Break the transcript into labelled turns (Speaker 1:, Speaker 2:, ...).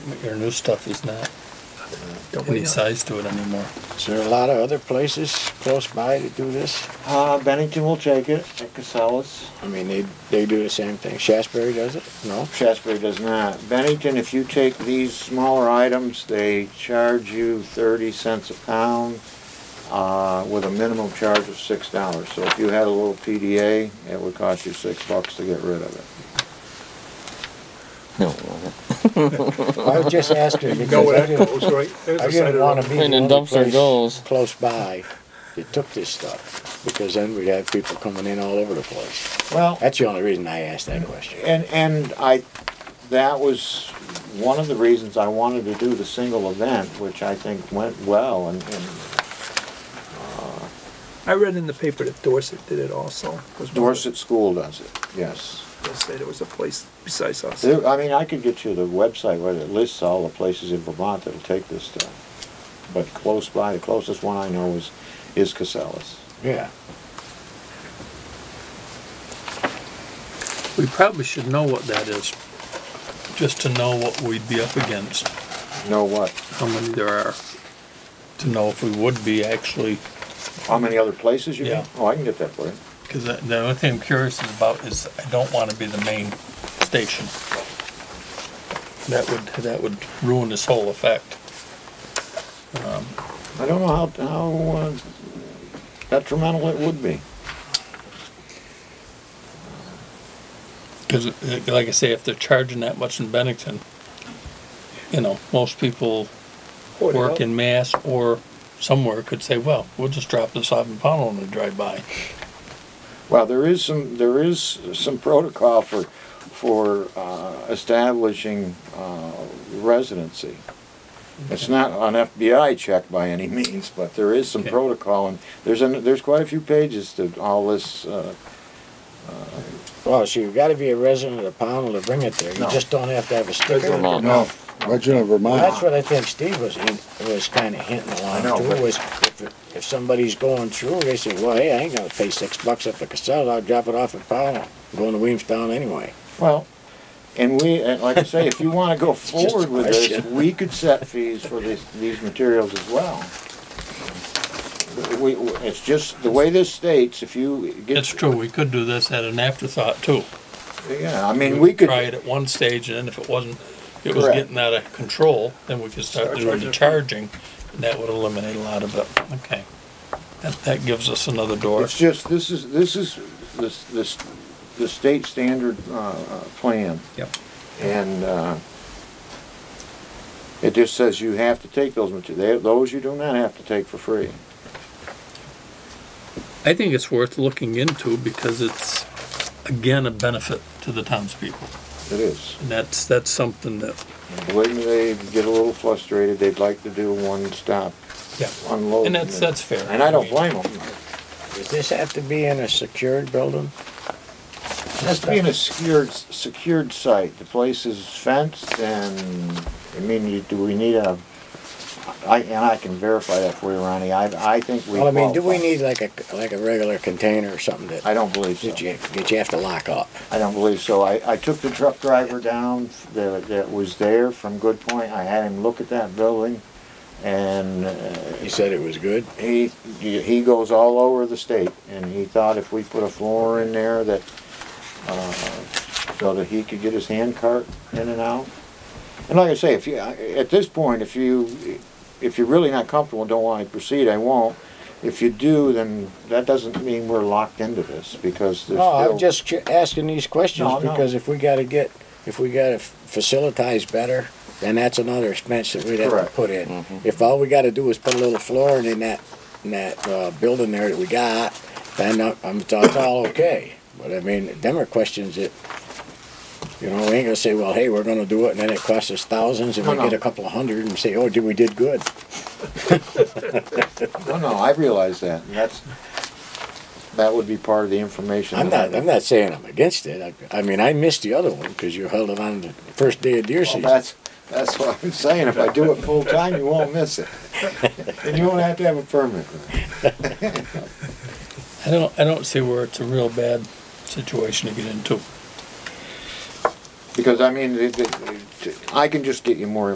Speaker 1: But Your new stuff is not
Speaker 2: Don't we
Speaker 1: any
Speaker 2: know?
Speaker 1: size to it anymore.
Speaker 3: Is there a lot of other places close by to do this?
Speaker 4: Uh, Bennington will take it, at Casellas.
Speaker 3: I mean, they, they do the same thing. Shasberry does it? No?
Speaker 4: Shasbury does not. Bennington, if you take these smaller items, they charge you thirty cents a pound, uh, with a minimum charge of six dollars. So if you had a little PDA, it would cost you six bucks to get rid of it.
Speaker 5: No.
Speaker 3: I was just asking
Speaker 2: You know
Speaker 3: because I
Speaker 2: where that
Speaker 3: didn't,
Speaker 2: goes, right? There's
Speaker 3: I
Speaker 2: the side
Speaker 3: didn't
Speaker 2: of
Speaker 3: wanna
Speaker 2: the
Speaker 3: be
Speaker 5: And
Speaker 3: the
Speaker 5: then
Speaker 3: only
Speaker 5: dumpster goes.
Speaker 3: place close by that took this stuff, because then we'd have people coming in all over the place.
Speaker 4: Well,
Speaker 3: That's the only reason I asked that question.
Speaker 4: And, and I, that was one of the reasons I wanted to do the single event, which I think went well and, and
Speaker 2: I read in the paper that Dorset did it also. was one of the-
Speaker 4: Dorset School does it, yes.
Speaker 2: They said there was a place besides us.
Speaker 4: There, I mean, I could get you the website where it lists all the places in Vermont that'll take this stuff. But close by, the closest one I know is, is Casellas.
Speaker 3: Yeah.
Speaker 1: We probably should know what that is, just to know what we'd be up against,
Speaker 4: Know what?
Speaker 1: how many there are, to know if we would be actually,
Speaker 4: How many other places you
Speaker 1: Yeah.
Speaker 4: mean? Oh, I can get that for you.
Speaker 1: because the only thing I'm curious about is I don't want to be the main station. That would, that would ruin this whole effect.
Speaker 4: I don't know how, how uh, detrimental it would be.
Speaker 1: Because, uh, like I say, if they're charging that much in Bennington, you know, most people
Speaker 2: Boy,
Speaker 1: work
Speaker 2: hell,
Speaker 1: in Mass or somewhere could say, well, we'll just drop this off in Pownell and they drive by.
Speaker 4: Well, there is some, there is some protocol for, for uh, establishing uh, residency. It's not an FBI check by any means, but there is some
Speaker 1: Okay.
Speaker 4: protocol, and there's, an- there's quite a few pages to all this. uh,
Speaker 3: Well, so you've gotta be a resident of Pownell to bring it there. You
Speaker 4: No.
Speaker 3: just don't have to have a sticker.
Speaker 2: Resident.
Speaker 5: Vermont.
Speaker 4: No,
Speaker 6: Regina,
Speaker 3: Well, that's
Speaker 6: Vermont.
Speaker 3: what I think Steve was, hint- was kinda hinting along
Speaker 4: I know, but-
Speaker 3: too, was if, if somebody's going through, they say, well, hey, I ain't gonna pay six bucks up to Casella, I'll drop it off at Pownell. I'm Going to Williamstown anyway.
Speaker 4: Well, and we, and like I say, if you want to go
Speaker 3: just a
Speaker 4: forward with this,
Speaker 3: question.
Speaker 4: we could set fees for these, these materials as well. We, we- it's just, the way this states, if you get.
Speaker 1: It's true, we could do this at an afterthought too.
Speaker 4: Yeah, I mean, we could.
Speaker 1: Try it at one stage and then if it wasn't, it was
Speaker 4: Correct.
Speaker 1: getting out of control, then we could start
Speaker 2: Start
Speaker 1: doing the
Speaker 2: charging.
Speaker 1: charging. And that would eliminate a lot of it. Okay. That, that gives us another door.
Speaker 4: It's just, this is, this is, this, this, the state standard, uh, uh, plan,
Speaker 1: Yep.
Speaker 4: and, uh, it just says you have to take those materials, those you do not have to take for free.
Speaker 1: I think it's worth looking into because it's, again, a benefit to the townspeople.
Speaker 4: It is.
Speaker 1: And that's, that's something that,
Speaker 4: When they get a little frustrated, they'd like to do one stop
Speaker 1: yeah.
Speaker 4: unload.
Speaker 1: And that's, that's fair.
Speaker 4: And I don't blame them.
Speaker 3: Does this have to be in a secured building?
Speaker 4: It has to be in a secured, secured site, the place is fenced and, I mean, you, do we need a, I, and I can verify that for you, Ronnie, I, I think we.
Speaker 3: Well, I mean, do we
Speaker 4: qualify.
Speaker 3: need like a, like a regular container or something that,
Speaker 4: I don't believe so.
Speaker 3: that you, that you have to lock up?
Speaker 4: I don't believe so. I, I took the truck driver down that, that was there from Good Point. I had him look at that building and uh,
Speaker 3: He said it was good.
Speaker 4: he, he goes all over the state. And he thought if we put a floor in there that, uh, so that he could get his hand cart in and out. And like I say, if you, at this point, if you, if you're really not comfortable and don't want to proceed, I won't. If you do, then that doesn't mean we're locked into this because there's
Speaker 3: No,
Speaker 4: still.
Speaker 3: I'm just ju- asking these questions
Speaker 4: No, no.
Speaker 3: because if we gotta get, if we gotta f- facilitize better, then that's another expense that we'd have to
Speaker 4: Correct. Mm-hmm.
Speaker 3: put in. If all we gotta do is put a little flooring in that, in that, uh, building there that we got, then I- I'm, that's all okay. But I mean, them are questions that, you know, we ain't gonna say, well, hey, we're gonna do it and then it costs us thousands and
Speaker 4: No,
Speaker 3: we get
Speaker 4: no.
Speaker 3: a couple of hundred and say, oh, did, we did good.
Speaker 4: No, no, I realize that, and that's, that would be part of the information.
Speaker 3: I'm
Speaker 4: that I-
Speaker 3: not, I'm not saying I'm against it. I, I mean, I missed the other one because you held it on the first day of deer
Speaker 4: Well,
Speaker 3: season.
Speaker 4: that's, that's what I'm saying, if I do it full-time, you won't miss it. And you won't have to have a permit.
Speaker 1: I don't, I don't see where it's a real bad situation to get into.
Speaker 4: Because, I mean, the- the- I can just get you more